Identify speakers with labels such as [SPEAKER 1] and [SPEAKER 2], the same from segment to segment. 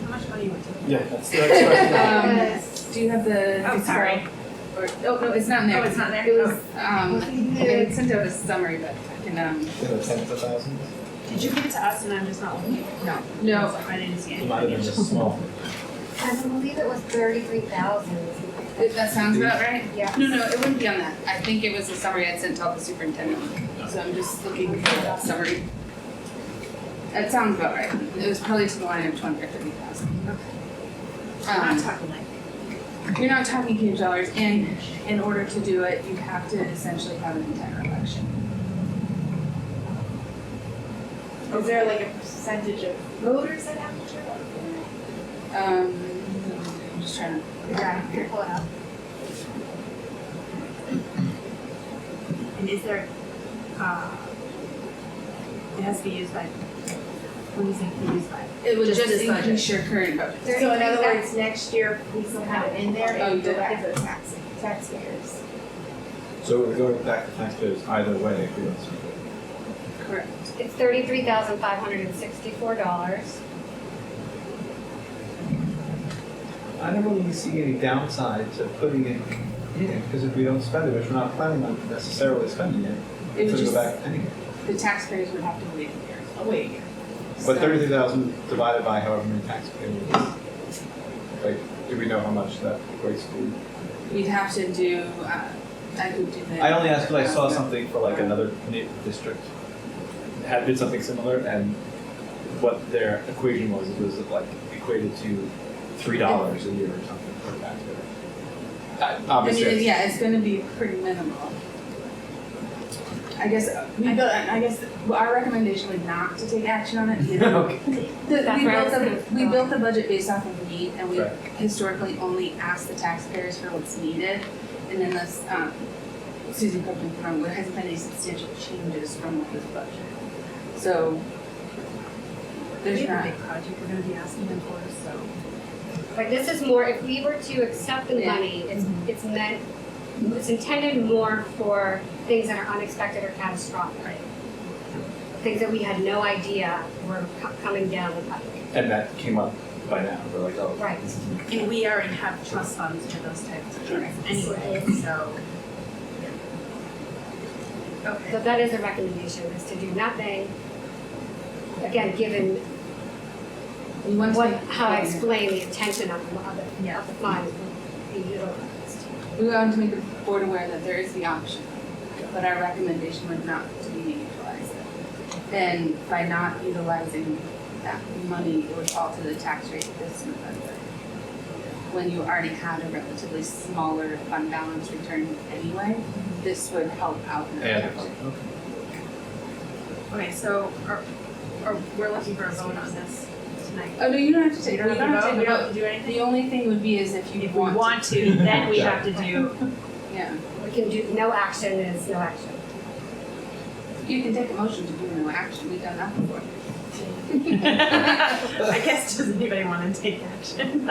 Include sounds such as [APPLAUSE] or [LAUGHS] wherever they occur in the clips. [SPEAKER 1] thought you were doing.
[SPEAKER 2] Yeah, that's the next question.
[SPEAKER 3] [LAUGHS]
[SPEAKER 4] Um,
[SPEAKER 1] Yes.
[SPEAKER 4] do you have the?
[SPEAKER 1] Oh,
[SPEAKER 4] Excel
[SPEAKER 1] sorry.
[SPEAKER 4] Or, oh, no, it's not in there.
[SPEAKER 1] Oh, it's not there?
[SPEAKER 4] It was,
[SPEAKER 1] Oh.
[SPEAKER 4] um, they had sent out a summary, but I can, um,
[SPEAKER 2] In the tens of thousands.
[SPEAKER 1] Did you give it to us and I'm just not looking? No.
[SPEAKER 4] no,
[SPEAKER 1] I didn't see
[SPEAKER 2] It
[SPEAKER 1] it.
[SPEAKER 2] might have been just small.
[SPEAKER 3] I believe it was thirty-three thousand.
[SPEAKER 4] it- that sounds about right.
[SPEAKER 3] Yeah.
[SPEAKER 4] No, no, it wouldn't be on that. I think it was a summary I'd sent to all the superintendent, so I'm just looking for that summary. That sounds about right. It was probably to the line of twenty or thirty thousand.
[SPEAKER 1] I'm
[SPEAKER 4] Um,
[SPEAKER 1] talking like.
[SPEAKER 4] you're not talking huge dollars, and in order to do it, you have to essentially have an entire election.
[SPEAKER 1] Is there like a percentage of voters that have to show up?
[SPEAKER 4] Um, I'm just trying to
[SPEAKER 3] Yeah, pull it out.
[SPEAKER 1] And is there, uh, it has to be used by, what do you think be used by?
[SPEAKER 4] It would
[SPEAKER 5] Just
[SPEAKER 4] just
[SPEAKER 5] this budget.
[SPEAKER 4] increase your current budget.
[SPEAKER 1] So in other words, next year, we still have it in there
[SPEAKER 4] Oh, you
[SPEAKER 1] and go
[SPEAKER 4] did.
[SPEAKER 1] back to the tax, taxpayers.
[SPEAKER 2] So we're going back to taxpayers either way if we don't spend it.
[SPEAKER 4] Correct.
[SPEAKER 3] It's thirty-three thousand five hundred and sixty-four dollars.
[SPEAKER 2] I don't really see any downside to putting it in, because if we don't spend it, which we're not planning on necessarily spending it,
[SPEAKER 4] It
[SPEAKER 2] it's
[SPEAKER 4] would
[SPEAKER 2] gonna go
[SPEAKER 4] just,
[SPEAKER 2] back anyway.
[SPEAKER 4] the taxpayers would have to wait a year.
[SPEAKER 1] Oh, wait.
[SPEAKER 4] So-
[SPEAKER 2] But thirty-three thousand divided by however many taxpayers, like, do we know how much that equates to?
[SPEAKER 4] You'd have to do, uh, I could do the.
[SPEAKER 2] I only asked because I saw something for like another na- district had did something similar and what their equation was, it was like equated to three dollars a year or something per taxpayer. Uh,
[SPEAKER 4] I mean,
[SPEAKER 2] Obviously,
[SPEAKER 4] yeah, it's gonna be pretty minimal. I guess, uh, we built, I guess, well, our recommendation would not to take action
[SPEAKER 2] [LAUGHS]
[SPEAKER 4] on it either.
[SPEAKER 2] Okay.
[SPEAKER 4] The,
[SPEAKER 3] That's
[SPEAKER 4] we
[SPEAKER 3] where I
[SPEAKER 4] built
[SPEAKER 3] was
[SPEAKER 4] the,
[SPEAKER 3] gonna
[SPEAKER 4] we
[SPEAKER 3] go.
[SPEAKER 4] built the budget based off of need, and we
[SPEAKER 2] Right.
[SPEAKER 4] historically only ask the taxpayers for what's needed. And then this, um, Susan Cookman found there hasn't been any substantial changes from what was budgeted. So there's
[SPEAKER 1] We have a
[SPEAKER 4] not,
[SPEAKER 1] big project we're gonna be asking them for, so.
[SPEAKER 3] But this is more, if we were to accept the
[SPEAKER 4] Yeah.
[SPEAKER 3] money, it's, it's meant, it's intended more for things that are unexpected or catastrophic. Things that we had no idea were co- coming down the pipe.
[SPEAKER 2] and that came up by now, we're like, oh.
[SPEAKER 3] Right.
[SPEAKER 1] And we already have trust funds for those types of things anyway, so. Okay.
[SPEAKER 3] So that is a recommendation, is to do nothing. Again, given
[SPEAKER 4] we want to.
[SPEAKER 3] what,
[SPEAKER 4] make-
[SPEAKER 3] how I explain the intention of the, of the, of the fund being utilized.
[SPEAKER 4] We want to make the board aware that there is the option, but our recommendation would not to be utilized. Then by not utilizing that money, it would fall to the tax rate this November. When you already had a relatively smaller fund balance return anyway, this would help out. in the
[SPEAKER 2] And,
[SPEAKER 4] budget.
[SPEAKER 1] Okay, so are, are, we're looking for a vote on this tonight?
[SPEAKER 4] Oh, no, you don't have to take, you
[SPEAKER 1] We
[SPEAKER 4] don't have to take a
[SPEAKER 1] We don't have
[SPEAKER 4] vote.
[SPEAKER 1] to do anything?
[SPEAKER 4] The only thing would be is if you
[SPEAKER 1] If we
[SPEAKER 4] want.
[SPEAKER 1] want [LAUGHS] to, then we have to do,
[SPEAKER 4] to. Yeah,
[SPEAKER 3] We can do, no action is no action.
[SPEAKER 4] you can take a motion to do no action, we've done that before.
[SPEAKER 1] [LAUGHS] I guess, does anybody want to take action?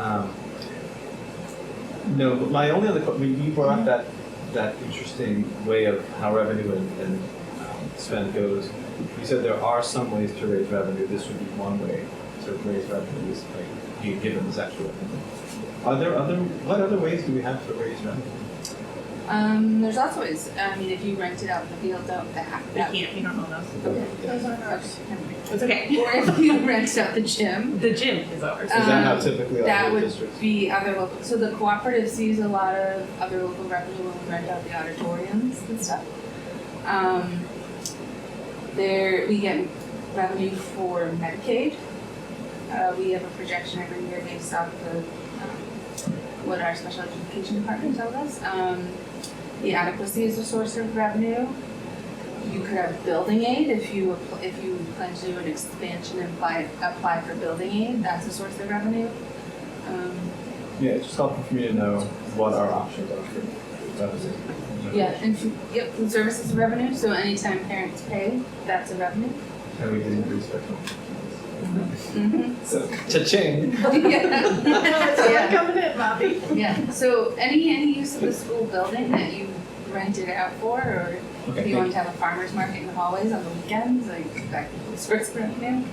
[SPEAKER 2] Um, No, but my only other, que- I mean, you brought up that,
[SPEAKER 4] Mm-hmm.
[SPEAKER 2] that interesting way of how revenue and, and um, spend goes. You said there are some ways to raise revenue, this would be one way to raise revenue, is like, you give them this extra revenue. Are there other, what other ways do we have to raise revenue?
[SPEAKER 4] Um, there's lots of ways. I mean, if you rented out the field, don't that
[SPEAKER 1] We
[SPEAKER 4] that.
[SPEAKER 1] can't, we don't own those.
[SPEAKER 2] Is
[SPEAKER 1] It's okay.
[SPEAKER 4] Or if you [LAUGHS] rented out the gym,
[SPEAKER 1] The gym is [LAUGHS] ours.
[SPEAKER 2] that how
[SPEAKER 4] Um,
[SPEAKER 2] typically
[SPEAKER 4] that
[SPEAKER 2] other
[SPEAKER 4] would
[SPEAKER 2] districts?
[SPEAKER 4] be other local. So the cooperative sees a lot of other local revenue when we rent out the auditoriums and stuff. Um, there we get revenue for Medicaid. Uh, we have a projection every year based off the um, what our special education department tells us. Um, the adequacy is a source of revenue. You could have building aid if you, appl- if you plan to do an expansion and apply, apply for building aid, that's a source of revenue. Um,
[SPEAKER 2] Yeah, it's just helpful for me to know what our options are for revenue.
[SPEAKER 4] Yeah, and, f- yep, and services revenue, so anytime parents pay, that's a revenue.
[SPEAKER 2] And we didn't do special.
[SPEAKER 4] Mhm.
[SPEAKER 2] So, cha-ching.
[SPEAKER 4] Yeah.
[SPEAKER 1] It's
[SPEAKER 4] all
[SPEAKER 1] [LAUGHS]
[SPEAKER 4] Yeah.
[SPEAKER 1] coming in, Bobby.
[SPEAKER 4] [LAUGHS] Yeah, so any, any use of the school building that you rent it out for, or if
[SPEAKER 2] Okay,
[SPEAKER 4] you want to have a farmer's market in the hallways on the weekends, like that could be a source of revenue.